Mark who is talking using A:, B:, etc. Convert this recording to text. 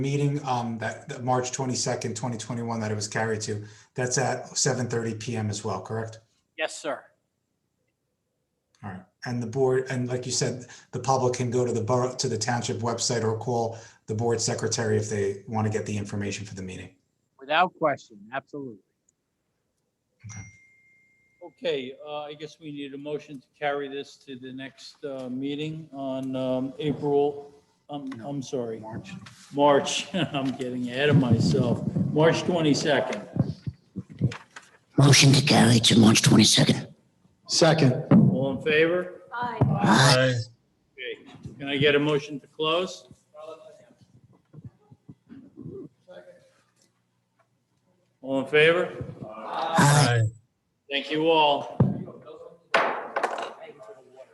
A: meeting, um, that, that March twenty-second, twenty twenty-one that it was carried to, that's at seven thirty PM as well, correct?
B: Yes, sir.
A: All right, and the board, and like you said, the public can go to the borough, to the township website or call the board secretary if they want to get the information for the meeting.
B: Without question, absolutely.
C: Okay, uh, I guess we need a motion to carry this to the next uh, meeting on um, April, um, I'm sorry. March. March, I'm getting ahead of myself. March 22nd.
D: Motion to carry to March 22nd.
E: Second.
C: All in favor?
F: Aye.
D: Aye.
C: Okay. Can I get a motion to close? All in favor?
D: Aye.
C: Thank you all.